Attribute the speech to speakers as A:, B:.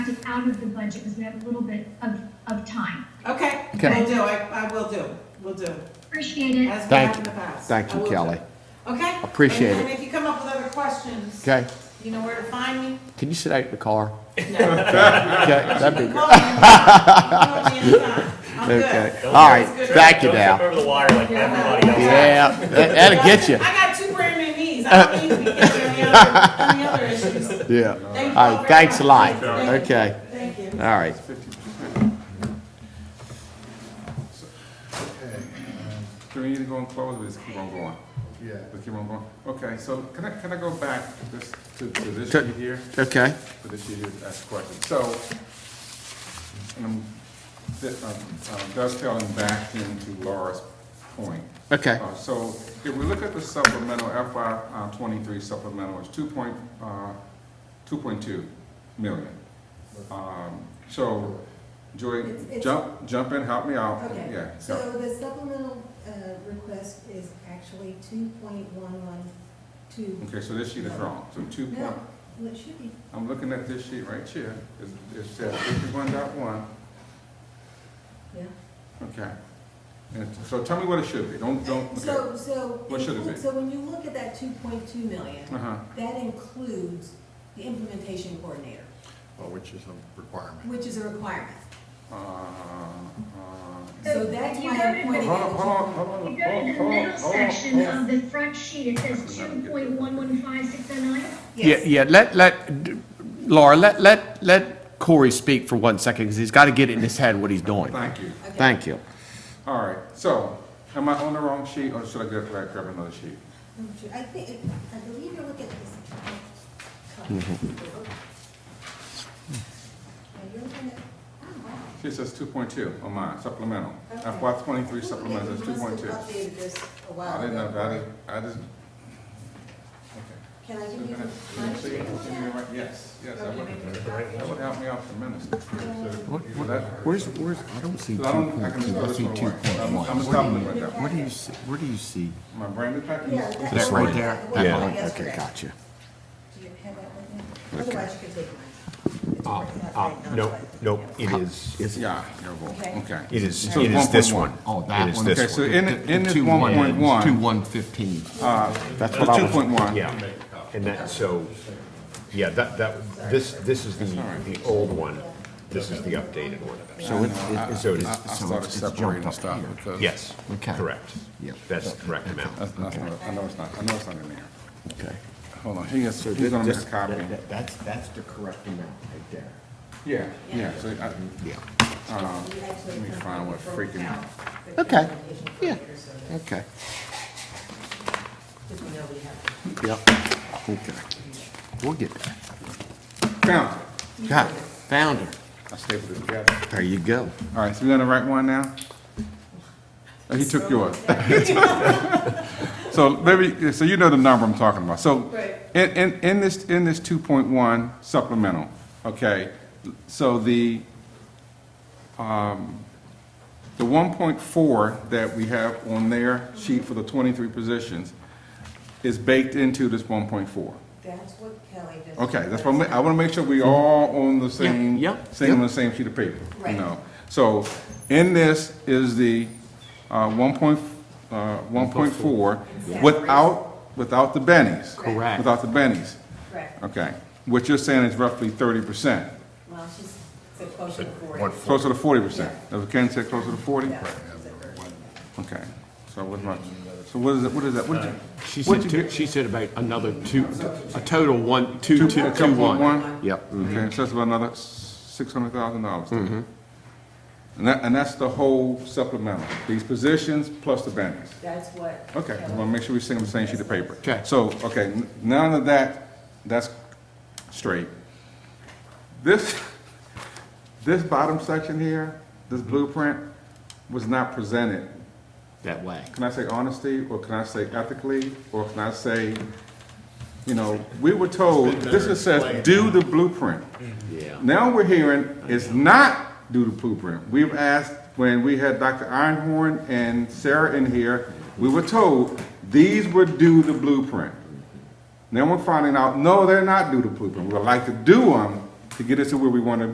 A: out of the budget because we have a little bit of, of time.
B: Okay,
C: Okay.
B: will do, I, I will do, will do,
A: Appreciate it.
B: as we
C: Thank
B: have in
C: you.
B: the past.
C: Thank
B: I
C: you,
B: will do.
C: Kelly.
B: Okay?
C: Appreciate
B: And-
C: it.
B: And if you come up with other questions,
C: Okay,
B: you know where to find me.
C: can you sit out in the car?
B: No.
C: Okay, that'd be good.
B: Call me. Call me anytime. I'm good.
C: Okay, all right,
B: It's good.
C: thank you
D: Don't step
C: now.
D: over the wire like everybody else.
C: Yeah, that- that'll get you.
B: I got two brand new knees, I don't need to be getting on the other, on the other issues. Thank
C: Yeah.
B: you
C: All
B: all very
C: right, thanks a lot.
B: much. Thank you.
C: Okay,
B: Thank you.
C: all right.
E: Do we need to go and close or just keep on going?
F: Yeah.
E: Just keep on going? Okay, so can I, can I go back this, to, to this
C: Sure.
E: sheet here?
C: Okay,
E: For this sheet here, to ask a question. So, um, th- um, um, dovetailing back into Laura's point.
C: okay,
E: Uh, So if we look at the supplemental FY uh, twenty-three supplemental, it's two point, uh, two point two million. Um, So, Joy,
G: It's- it's-
E: jump, jump in, help me out.
G: Okay,
E: Yeah,
G: so
E: yeah.
G: the supplemental uh, request is actually two point one one two.
E: Okay, so this sheet is wrong, so two point,
G: No, well, it should be,
E: I'm looking at this sheet right here, It- it says fifty-one dot one,
G: yeah.
E: okay. And so tell me what it should be, don't, don't, okay.
G: So, so.
E: What should it be?
G: So when you look at that two point two million,
E: Uh-huh,
G: that includes the implementation coordinator,
F: Well, Oh, which is a requirement.
G: which is a requirement.
E: uh, uh.
G: So that's
A: You
G: why
A: go to the-
G: I'm pointing
E: Hold on,
G: out.
E: hold on, hold on,
A: If you
E: hold
A: go
E: on,
A: to the middle
E: hold on, hold on,
A: section
E: hold on.
A: of the front sheet, it says two point one one five six oh nine.
C: yeah,
G: Yes.
C: yeah, let, let, d- Laura, let, let, let Corey speak for one second, because he's got to get it in his head what he's doing.
E: Thank you,
G: Okay.
C: Thank you.
E: all right, so, am I on the wrong sheet, or should I go back, grab another sheet?
G: I'm sure- I think, I believe you're looking at this. And you're looking at, oh, wow.
E: She says two point two on mine, supplemental,
G: Okay.
E: FY twenty-three
G: Okay,
E: supplemental,
G: we
E: is two point
G: must
E: two.
G: have updated this Oh, a while
E: I didn't know,
G: ago.
E: I didn't, I just. okay.
G: Can I give
E: Okay.
G: you my
E: Can you
G: sheet?
E: see- can you write- Yes, yes, that would, that would help me out tremendously.
C: Where's, where's, I don't see
E: Because I don't, I can just throw this one away. I'm, I'm just stopping right now.
C: Where do you, see- where do you see?
E: My brain is packing.
G: Yeah,
E: It's
G: that's
C: That right
G: the one
C: there?
G: that-
C: That
G: the
C: one?
G: one yesterday.
C: Okay, gotcha.
G: Do you have that with you? Otherwise, you can take mine. It's
H: Uh,
G: right,
H: uh,
G: not
H: Nope,
G: right.
H: nope, it is,
E: Yeah, terrible,
G: Okay.
E: okay.
H: it is,
E: So
H: it is this
E: 1.1.
H: one.
C: Oh, that
H: It is
C: one.
H: this
E: Okay, so
H: one.
E: in, it- in this
C: Two
E: one
C: one-
E: point one.
C: Two one fifteen. That's
E: The
C: what I
E: two
C: was.
E: point one.
H: Yeah, and that, so, yeah, that, that, this, this is the, the old one, this is the updated one.
C: So it- it- it's,
H: So it
E: uh, I
H: is,
E: started
C: it's jumped
E: separating
C: up
E: stuff
C: here.
E: because.
H: yes,
C: Okay.
H: correct.
C: Yep.
H: That's the correct amount.
E: That's, that's not, I know it's not, I know it's not in there.
C: okay.
E: Hold on, he is,
H: So
E: he's
H: this-
E: gonna make a
H: this-
E: copy.
H: that- that- That's, that's the correct amount right there.
E: Yeah, yeah, so I, uh,
H: Yeah.
G: You actually
E: let me
G: have
E: find
G: to
E: what
G: vote
E: freaking-
G: out the
C: Okay,
G: presentation for
C: yeah.
G: later, so that-
C: Okay.
G: just so you know we have-
C: Yep. Okay. We'll get that.
E: found it.
C: Got it. Found her.
E: I stapled it together.
C: There you go.
E: All right, so we're gonna write one now? Oh, He took yours. So maybe, so you know the number I'm talking about. So
B: Right.
E: in, in, in this, in this two point one supplemental, okay, so the, um, the one point four that we have on their sheet for the twenty-three positions is baked into this one point four.
G: That's what Kelly just.
E: Okay, that's what I'm, I want to make sure we all on the same,
C: yeah,
E: same, on
C: yeah.
E: the same sheet of paper, you
G: Right.
E: know? So, in this is the, uh, one point, uh, one point four, without, without the bennies.
G: Correct.
E: Without the bennies,
G: Correct.
E: okay. What you're saying is roughly thirty percent,
G: Well, she's so close to
H: One
G: forty.
H: four.
E: closer to forty percent. Does Ken say closer to forty?
G: Yeah, so thirty.
E: Okay, so what's my, so what is it, what is that, what did you?
C: She
E: what'd
C: said,
E: you
C: two-
E: get?
C: she said about another two, a total one, two, two, two,
E: Two point
C: one.
E: one?
C: Yep.
E: Okay, so that's about another six hundred thousand dollars. And that, and that's the whole supplemental, these positions plus the bennies.
G: That's what.
E: Okay, I
G: Kelly-
E: wanna make sure we sing on the same sheet of paper.
C: Okay.
E: So, okay, n- none of that, that's straight. This, this bottom section here, this blueprint, was not presented.
C: That way.
E: Can I say honesty, or can I say ethically, or can I say, you know, we were told, this is says, do the blueprint.
C: Yeah.
E: Now we're hearing it's not due to blueprint. We've asked, when we had Dr. Ironhorn and Sarah in here, we were told these were due to blueprint. Now we're finding out, no, they're not due to blueprint. We would like to do them to get us to where we want to